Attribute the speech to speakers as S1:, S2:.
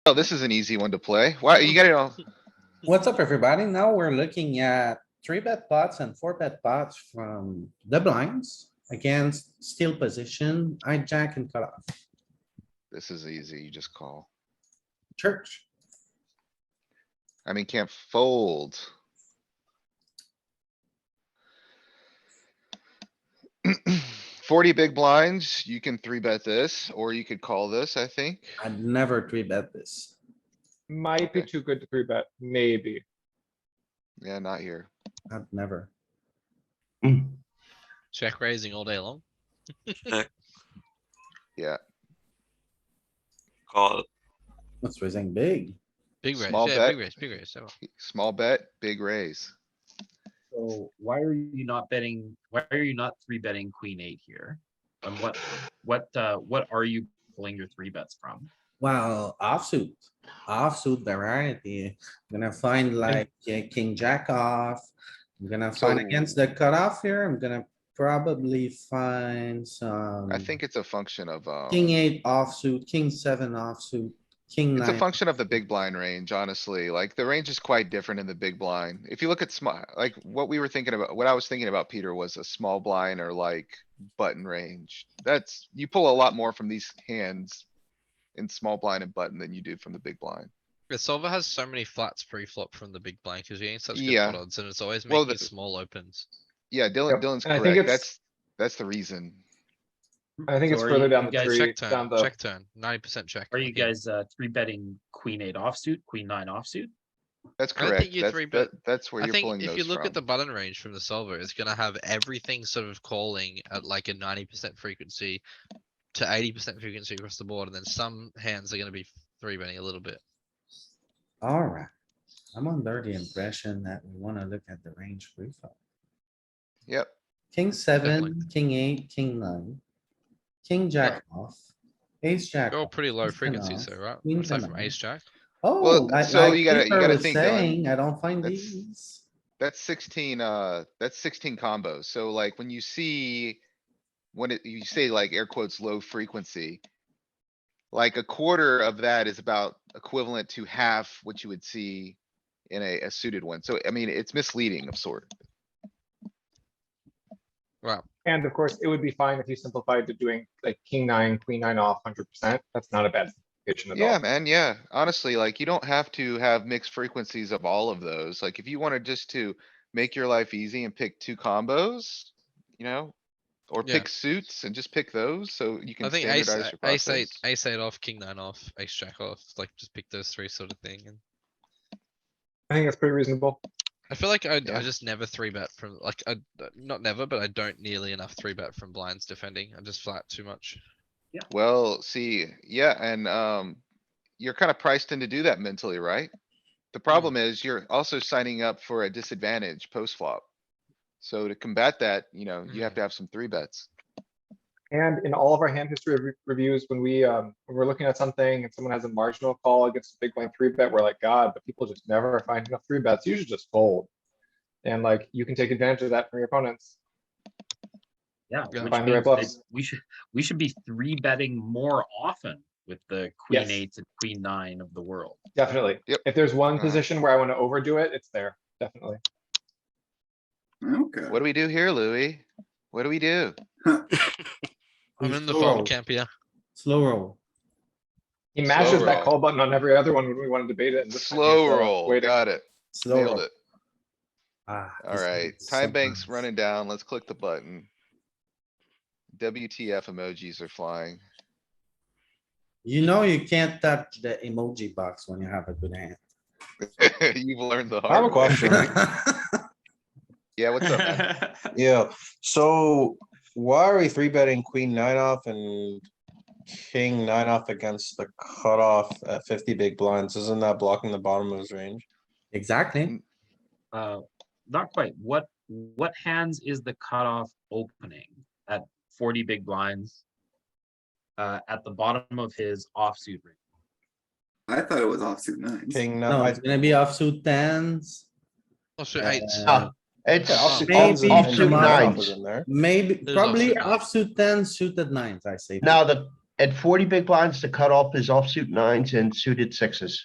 S1: Oh, this is an easy one to play. Wow, you gotta know,
S2: What's up, everybody? Now we're looking at three bet pots and four bet pots from the blinds against steel position, hijack and cutoff,
S1: this is easy, you just call.
S2: church.
S1: I mean, can't fold. Forty big blinds, you can three bet this, or you could call this, I think.
S2: I'd never three bet this.
S3: Might be
S1: Okay.
S3: too good to three bet, maybe.
S1: Yeah, not here.
S2: I'd never.
S4: Check raising all day long.
S1: Yeah,
S5: Call,
S2: It's raising big.
S4: Big raise,
S1: Small
S4: yeah,
S1: bet.
S4: big raise, big raise. so-
S1: small bet, big raise.
S6: So why are you not betting, why are you not three betting queen eight here? And what, what, uh, what are you pulling your three bets from?
S2: Well, offsuit, offsuit variety. I'm gonna find like yeah, king jack off. I'm gonna find
S1: So-
S2: against the cutoff here. I'm gonna probably find some.
S1: I
S4: Hmm.
S1: think it's a function of, um,
S2: King eight offsuit, king seven offsuit, king
S1: it's a
S2: nine.
S1: function of the big blind range, honestly. Like, the range is quite different in the big blind. If you look at small, like, what we were thinking about, what I was thinking about, Peter, was a small blind or like button range. That's, you pull a lot more from these hands in small blind and button than you do from the big blind.
S4: The solver has so many flats pre-flop from the big blind because we ain't such good
S1: Yeah.
S4: pot odds and it's always
S1: Well,
S4: making
S1: the-
S4: small opens.
S1: Yeah, Dylan,
S3: Yep,
S1: Dylan's
S3: and I think
S1: correct.
S3: it's-
S1: That's, that's the reason.
S3: I think
S6: So
S3: it's
S6: are
S3: further
S6: you-
S3: down
S6: you
S3: the
S6: guys
S3: tree,
S4: Check
S3: down
S4: turn,
S3: the,
S4: check turn, ninety percent check.
S6: Are you
S4: yeah.
S6: guys, uh, three betting queen eight offsuit, queen nine offsuit?
S1: That's
S4: I don't think
S1: correct.
S4: you
S1: That's,
S4: three
S1: that,
S4: bet-
S1: that's where
S4: I
S1: you're pulling
S4: think
S1: those
S4: if you look at the
S1: from.
S4: button range from the solver, it's gonna have everything sort of calling at like a ninety percent frequency to eighty percent frequency across the board, and then some hands are gonna be three betting a little bit.
S2: Alright, I'm under the impression that we wanna look at the range free flop.
S1: Yep,
S2: King seven,
S4: Definitely.
S2: king eight, king nine. King jack off, ace jack.
S4: They're all
S2: off.
S4: pretty low
S2: Queens ten
S4: frequencies
S2: off,
S4: though, right?
S2: queens
S4: Aside
S2: ten
S4: from
S2: off.
S4: ace jack.
S2: Oh,
S1: Well,
S2: like,
S1: so
S2: like
S1: you gotta- you
S2: Peter
S1: gotta
S2: was
S1: think, Dylan.
S2: saying, I don't find
S1: That's-
S2: these.
S1: that's sixteen, uh, that's sixteen combos. So like, when you see, when it, you say like air quotes, low frequency. Like a quarter of that is about equivalent to half what you would see in a, a suited one. So I mean, it's misleading of sort.
S4: Wow,
S3: and of course, it would be fine if you simplified to doing like king nine, queen nine off hundred percent. That's not a bad simplification at
S1: Yeah,
S3: all.
S1: man, yeah. Honestly, like you don't have to have mixed frequencies of all of those. Like if you wanted just to make your life easy and pick two combos, you know? Or
S4: Yeah.
S1: pick suits and just pick those, so you
S4: I
S1: can
S4: think ace,
S1: standardize your
S4: ace eight,
S1: process.
S4: ace eight off, king nine off, ace jack off, like just pick those three sort of thing and.
S3: I think that's pretty reasonable.
S4: I feel like I,
S1: Yeah.
S4: I just never three bet from like I not never, but I don't nearly enough three bet from blinds defending. I just flat too much.
S1: Well, see, yeah, and, um, you're kind of priced in to do that mentally, right? The
S2: Mm-hmm.
S1: problem is you're also signing up for a disadvantage post flop. So to combat that, you know, you
S2: Mm-hmm.
S1: have
S4: Mm.
S1: to have some three bets.
S3: And in all of our hand history re- reviews, when we, um, when we're looking at something and someone has a marginal call against a big blind three bet, we're like, God, but people just never find enough three bets. You should just fold. And like, you can take advantage of that from your opponents.
S6: Yeah.
S4: Yeah.
S6: which
S3: Find the right
S6: means that
S3: bluffs.
S6: We should, we should be three betting more often with the queen
S3: Yes.
S6: eights and queen nine of the world.
S3: Definitely.
S1: Yep.
S3: If there's one
S1: Uh-huh.
S3: position where I want to overdo it, it's there, definitely.
S7: Okay.
S1: What do we do here, Louis? What do we do?
S4: I'm
S2: Who's
S4: in the
S2: slow roll?
S4: fold camp here.
S2: Slow roll.
S3: He
S1: Slow
S3: mashes that
S1: roll.
S3: call button on every other one when we want to debate it. and this time he's,
S1: Slow
S3: uh,
S1: roll,
S3: waiting.
S1: got it,
S2: slow
S1: nailed
S2: roll.
S1: it.
S2: Ah, this
S1: Alright,
S2: is
S1: time bank's
S2: sometimes.
S1: running down, let's click the button. WTF emojis are flying.
S2: You know, you can't touch the emoji box when you have a good hand.
S1: You've learned the
S7: I
S1: hard
S7: have a
S1: way.
S7: question.
S1: Yeah, what's up, man?
S7: Yeah, so why are we three betting queen nine off and king nine off against the cutoff at fifty big blinds? Isn't that blocking the bottom of his range?
S2: Exactly.
S6: Uh, not quite. What, what hands is the cutoff opening at forty big blinds? Uh, at the bottom of his offsuit range?
S8: I thought it was offsuit nines.
S7: King
S2: No,
S7: nine.
S2: it's gonna be offsuit tens.
S4: Oh shoot, eights.
S2: uh,
S9: It's
S4: Yeah.
S9: off,
S2: Maybe
S9: off,
S2: offsuit
S9: offsuit
S7: nine
S9: nines.
S7: in there.
S2: Maybe,
S4: There's
S2: probably
S4: offsuit nines.
S2: offsuit tens, suited nines, I say.
S9: Now the
S5: At forty big blinds, the cutoff is offsuit nines and suited sixes.